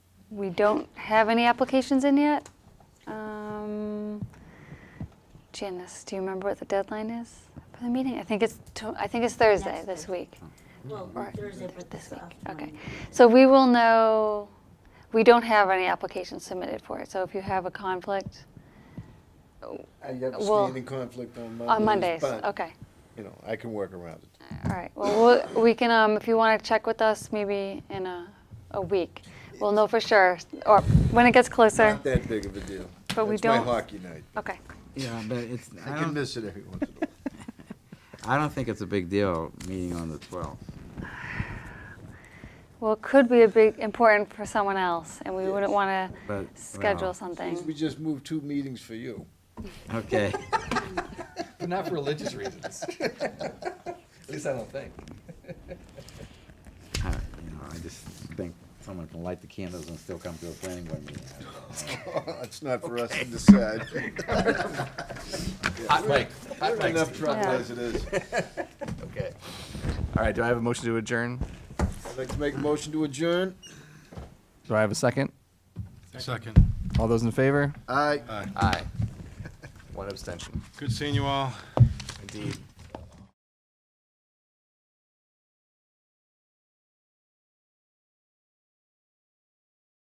We don't have any applications in yet. Um, Janice, do you remember what the deadline is for the meeting? I think it's, to- I think it's Thursday Next this Thursday. week. Well, Or Thursday, but this this week, okay. afternoon. So we will know, we don't have any applications submitted for it, so if you have a conflict I have a Well, standing conflict on Mondays. on Mondays, but, okay. You know, I can work around it. All right, well, we'll- we can, um, if you want to check with us, maybe in a, a week. We'll know for sure, or when it gets closer. Not that big of a deal. But we That's my don't- hockey night. Okay, Yeah, but it's, I I can don't, miss it every once in a while. I don't think it's a big deal, meeting on the 12th. well, it could be a big, important for someone else, and we wouldn't Yes. want to But, schedule well. Please, We something. just moved two meetings for you. Okay. But not for religious reasons. At least I don't think. I- You know, I just think someone can light the candles and still come to a planning board meeting. It's not for us to decide. Hot mic, hot We're in mic. Enough Steve. trouble Yeah. as it is. Okay. All right, do I have a motion to adjourn? I'd like to make a motion to adjourn. Do I have a second? Second. All those in favor? Aye. Aye. Aye. One abstention. Good seeing you all. Indeed.